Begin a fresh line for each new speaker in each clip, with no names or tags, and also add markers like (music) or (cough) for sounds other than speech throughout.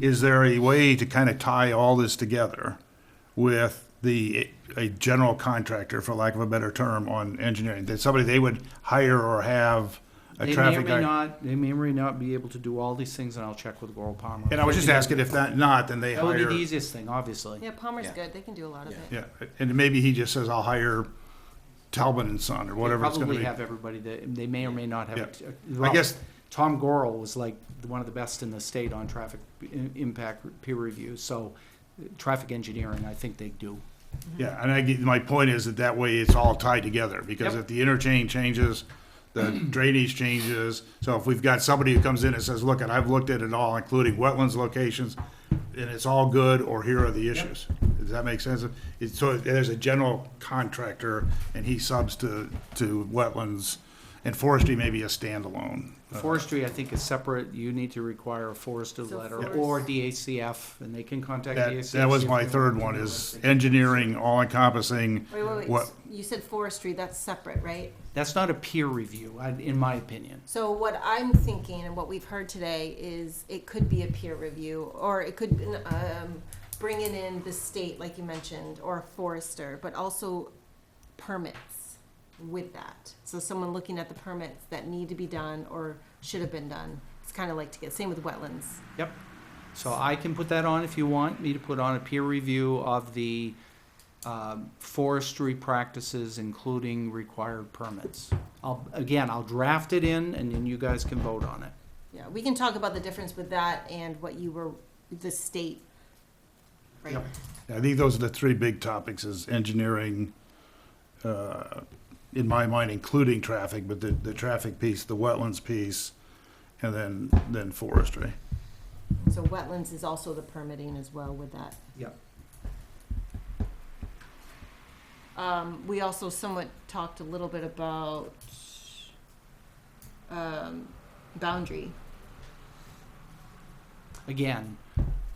is there a way to kind of tie all this together with the, a general contractor, for lack of a better term, on engineering? That somebody they would hire or have a
They may or
traffic
may
guy?
not, they may or may not be able to do all these things, and I'll check with Laurel Palmer.
And I was just asking if that not, then they
That would be
hire,
the easiest thing, obviously.
Yeah, Palmer's
Yeah.
good. They can do a lot of
Yeah.
it.
yeah, and maybe he just says, I'll hire Talbot and Son or whatever it's gonna
Probably
be.
have everybody that, they may or may not have.
Yeah.
a-
I guess-
Tom Gorel was like one of the best in the state on traffic i- impact peer review, so uh, traffic engineering, I think they do.
Yeah, and I get, my point is that that way it's all tied together, because
Yep.
if the interchange changes,
(clears throat)
the drainage changes, so if we've got somebody who comes in and says, look, and I've looked at it all, including wetlands locations, and it's all good, or here are the issues. Does that make sense? It's, so there's a general contractor, and he subs to, to wetlands, and forestry may be a standalone.
Forestry, I think, is separate. You need to require a forester
So
letter
forest-
or DACF, and they can contact
That,
DACF.
that was my third one, is engineering, all encompassing,
Wait, wait, wait.
What-
S- You said forestry, that's separate, right?
That's not a peer review, I- in my opinion.
So what I'm thinking and what we've heard today is it could be a peer review or it could, um, bringing in the state, like you mentioned, or a forester, but also permits with that. So someone looking at the permits that need to be done or should have been done. It's kind of like to get, same with wetlands.
Yep. So I can put that on if you want me to put on a peer review of the um, forestry practices, including required permits. I'll, again, I'll draft it in and then you guys can vote on it.
Yeah, we can talk about the difference with that and what you were, the state. Right.
Yep.
I think those are the three big topics is engineering, uh, in my mind, including traffic, but the, the traffic piece, the wetlands piece, and then, then forestry.
So wetlands is also the permitting as well with that.
Yep.
Um, we also somewhat talked a little bit about, um, boundary.
Again,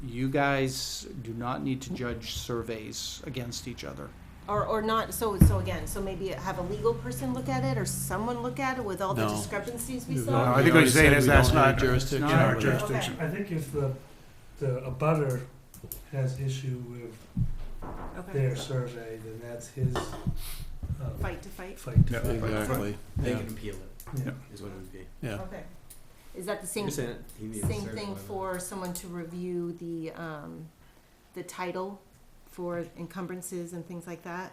you guys do not need to judge surveys against each other.
Or, or not, so, so again, so maybe have a legal person look at it or someone look at it with all the
No.
discrepancies we
No,
saw?
I think what
We already
you're saying
said
is
we
that's
don't have
not.
jurisdiction
in our
over that.
jurisdiction.
I think if the, the abutter has issue with
Okay.
their survey, then that's his, uh,
Fight to fight?
fight
Yeah.
to fight.
Exactly,
They
yeah,
can appeal it,
Yeah.
is what it would be.
yeah.
Okay. Is that the same,
You're
same
saying he needs a certain
thing
amount of-
for someone to review the, um, the title for encumbrances and things like that?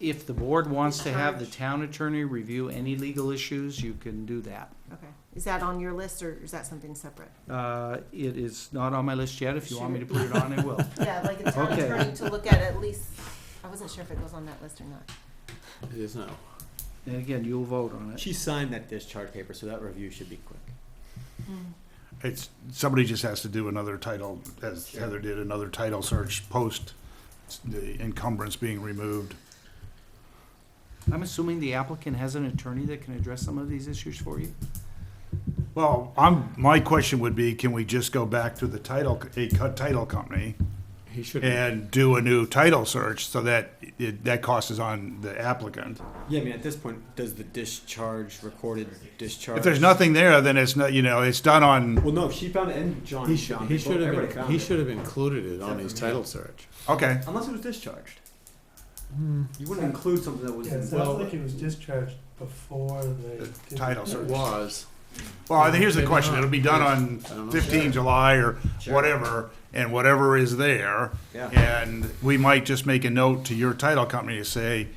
If the board wants to have the
Charge.
town attorney review any legal issues, you can do that.
Okay. Is that on your list or is that something separate?
Uh, It is not on my list yet. If you want me to put it on, I will.
Yeah, like a town
Okay.
attorney to look at at least, I wasn't sure if it goes on that list or not.
It is now.
And again, you'll vote on it.
She signed that discharge paper, so that review should be quick.
It's, somebody just has to do another title, as Heather did, another title search post the encumbrance being removed.
I'm assuming the applicant has an attorney that can address some of these issues for you?
Well, I'm, my question would be, can we just go back to the title, a co- title company?
He should.
and do a new title search so that it, that cost is on the applicant.
Yeah, I mean, at this point, does the discharge, recorded discharge?
If there's nothing there, then it's not, you know, it's done on,
Well, no, she found it and John
He should,
found
he
it.
should have,
Everybody
been-
found
he
it.
should have included it
Except
on his
for me.
title search.
okay.
Unless it was discharged.
Hmm.
You wouldn't include something that was
Yeah, it
in.
sounds like it was discharged before they. did
title
the-
search.
It was.
Well, I think here's the question. It'll be done on fifteen July or
Sure.
whatever, and whatever is there.
Yeah.
And we might just make a note to your title company to say,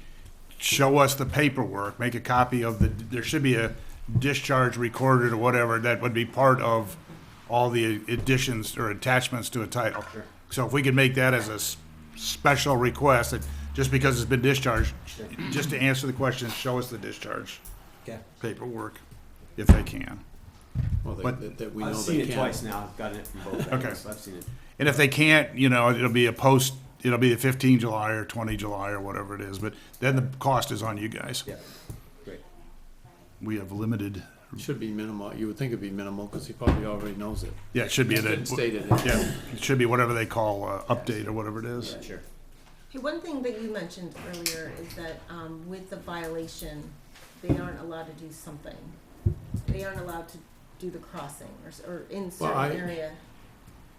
show us the paperwork, make a copy of the, there should be a discharge recorded or whatever that would be part of all the additions or attachments to a title.
Sure.
So if we could make that as a s- special request, that just because it's been discharged,
Sure.
just to answer the question, show us the discharge
Okay.
paperwork, if they can.
Well,
But-
that, that- that we know
I've
they
seen
can.
it twice now. I've gotten it from both.
Okay.
angles. I've seen it.
And if they can't, you know, it'll be a post, it'll be the 15 July or 20 July or whatever it is, but then the cost is on you guys.
Yeah. Great.
We have limited,
Should be minimal, you would think it'd be minimal, because he probably already knows it.
yeah, it should be,
He didn't
the
state it.
yeah, it should be whatever they call uh, update or whatever it is.
Yeah, sure.
Hey, one thing that you mentioned earlier is that um, with the violation, they aren't allowed to do something. They aren't allowed to do the crossing or, s- or in certain
I-
area.